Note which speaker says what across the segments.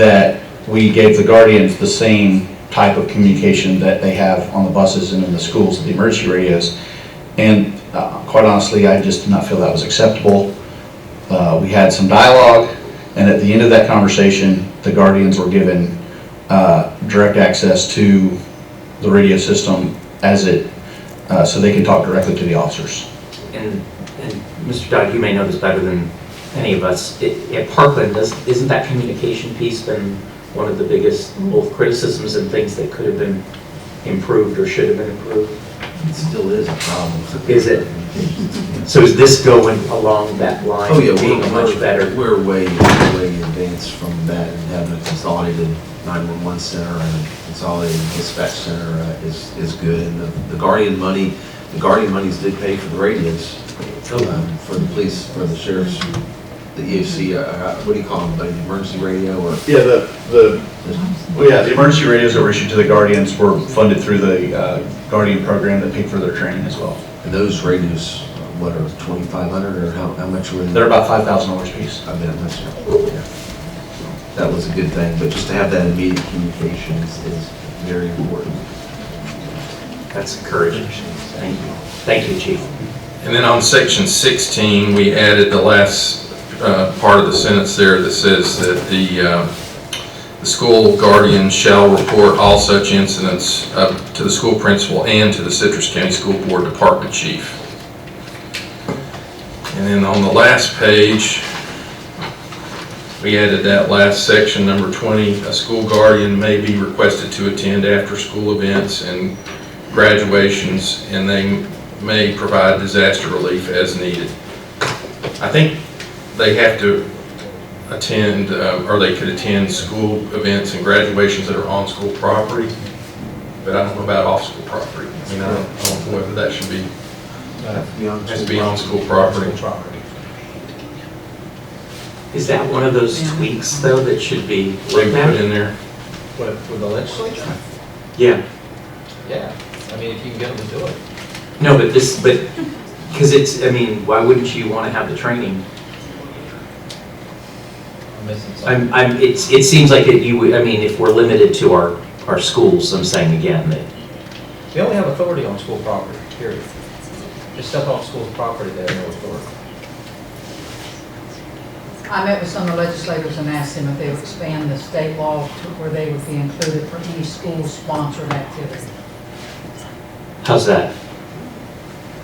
Speaker 1: that we gave the guardians the same type of communication that they have on the buses and in the schools, the emergency radios. And uh, quite honestly, I just did not feel that was acceptable. Uh, We had some dialogue, and at the end of that conversation, the guardians were given uh, direct access to the radio system as it, uh, so they can talk directly to the officers.
Speaker 2: And, and Mr. Dodd, you may know this better than any of us, I- at Parkland, does- isn't that communication piece been one of the biggest, both criticisms and things that could have been improved or should have been improved?
Speaker 3: It still is a problem.
Speaker 2: Is it? So is this going along that line?
Speaker 3: Oh, yeah,
Speaker 2: Being
Speaker 3: we're
Speaker 2: much better?
Speaker 3: We're way, way in advance from that, and having a consolidated 911 center and a consolidated dispatch center uh, is, is good. And the the Guardian money, the Guardian monies did pay for the radios, um, for the police, for the sheriff's, the EOC, uh, uh, what do you call them, like the emergency radio or?
Speaker 1: Yeah, the, the Well, yeah, the emergency radios that were issued to the Guardians were funded through the uh, Guardian program that paid for their training as well.
Speaker 3: And those radios, uh, what are 2,500 or how, how much were they?
Speaker 1: They're about five thousand dollars a piece.
Speaker 3: I mean, I'm not sure. Yeah. That was a good thing, but just to have that immediate communication is, is very important.
Speaker 2: That's encouraging. Thank you. Thank you, chief.
Speaker 4: And then on section 16, we added the last uh, part of the sentence there that says that the, uh, the school guardian shall report all such incidents up to the school principal and to the Citrus County School Board Department Chief. And then on the last page, we added that last section, number 20, a school guardian may be requested to attend after-school events and graduations, and they may provide disaster relief as needed. I think they have to attend, uh, or they could attend school events and graduations that are on school property, but I don't know about off-school property. I mean, I don't I don't know whether that should be, has to be on school property.
Speaker 2: Is that one of those tweaks, though, that should be
Speaker 4: They
Speaker 2: looked
Speaker 4: put
Speaker 2: at?
Speaker 4: in there.
Speaker 5: What, with the legislature?
Speaker 2: Yeah.
Speaker 5: Yeah, I mean, if you can get them to do it.
Speaker 2: No, but this, but, because it's, I mean, why wouldn't you want to have the training?
Speaker 5: I'm missing something.
Speaker 2: I'm, I'm, it's, it seems like it, you, would- I mean, if we're limited to our, our schools, I'm saying again that,
Speaker 5: We only have authority on school property, period. Just stuff on school property, they have no authority.
Speaker 6: I met with some of the legislators and asked them if they would expand the state law to where they would be included for any school-sponsored activity,
Speaker 2: how's that?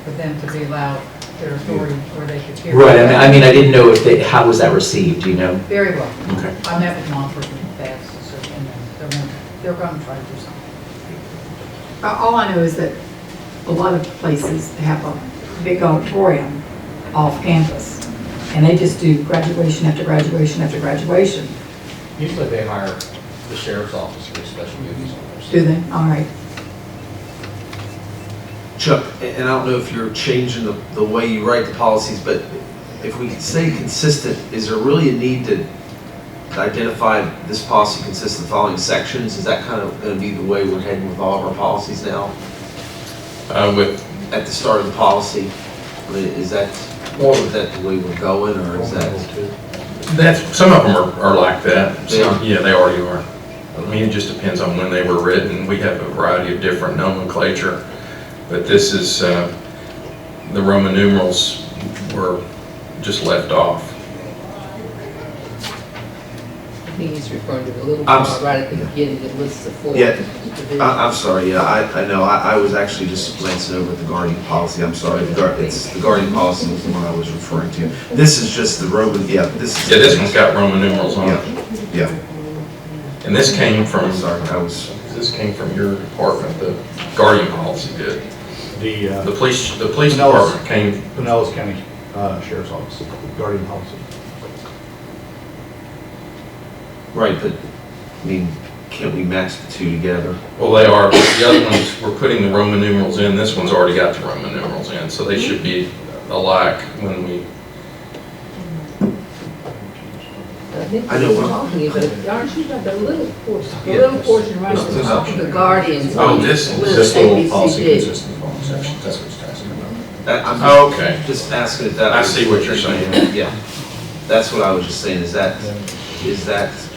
Speaker 6: for them to be allowed their authority where they could hear.
Speaker 2: Right, I mean, I mean, I didn't know if they, how was that received, you know?
Speaker 6: Very well.
Speaker 2: Okay.
Speaker 6: I met with Montford and Bass, so, and they're going, they're going to try to do something.
Speaker 7: Uh, All I know is that a lot of places have a big auditorium off campus, and they just do graduation after graduation after graduation,
Speaker 5: Usually they hire the sheriff's office for special duties on those.
Speaker 7: do they? All right.
Speaker 3: Chuck, a- and I don't know if you're changing the, the way you write the policies, but if we could say consistent, is there really a need to identify this policy consists of the following sections? Is that kind of gonna be the way we're heading with all of our policies now,
Speaker 4: Uh, With,
Speaker 3: at the start of the policy? I mean, Is that, is that the way we're going, or is that?
Speaker 4: that's, some of them are are like that.
Speaker 3: They are?
Speaker 4: Some- Yeah, they already are. I mean, it just depends on when they were written. We have a variety of different nomenclature, but this is, uh, the Roman numerals were just left off.
Speaker 8: He's referring to the little
Speaker 3: I'm
Speaker 8: part
Speaker 3: s-
Speaker 8: right at the
Speaker 3: yeah.
Speaker 8: beginning that lists the four.
Speaker 3: Yeah.
Speaker 8: divisions.
Speaker 3: I- I'm sorry, yeah, I, I know, I, I was actually just glancing over the Guardian policy, I'm sorry, the guard, it's, the Guardian policy was the one I was referring to. This is just the Roman, yeah, this is.
Speaker 4: Yeah, this one's got Roman numerals on it.
Speaker 3: Yeah, yeah,
Speaker 4: And this came from,
Speaker 3: I'm sorry, I was,
Speaker 4: this came from your department, the guardian policy did.
Speaker 9: The
Speaker 4: The
Speaker 9: uh,
Speaker 4: police, the police
Speaker 9: No, it's-
Speaker 4: department came,
Speaker 9: Pinellas County uh, Sheriff's Office, Guardian Policy.
Speaker 3: right, but, I mean, can't we match the two together?
Speaker 4: well, they are, but the other ones, we're putting the Roman numerals in, this one's already got the Roman numerals in, so they should be alike when we,
Speaker 8: I think
Speaker 3: I know
Speaker 8: we're
Speaker 3: what-
Speaker 8: talking, but aren't you about the little portion, the
Speaker 3: Yeah,
Speaker 8: little portion right at
Speaker 3: this
Speaker 8: the
Speaker 3: is
Speaker 8: top of the guardians?
Speaker 4: Oh, this is-
Speaker 8: list,
Speaker 1: This little
Speaker 8: ABCD.
Speaker 1: policy consists of following sections, that's what it's asking about.
Speaker 3: That, I'm just-
Speaker 4: Oh, okay,
Speaker 3: just asking if that.
Speaker 4: I
Speaker 3: was-
Speaker 4: see what you're saying.
Speaker 3: Yeah, that's what I was just saying, is that, is that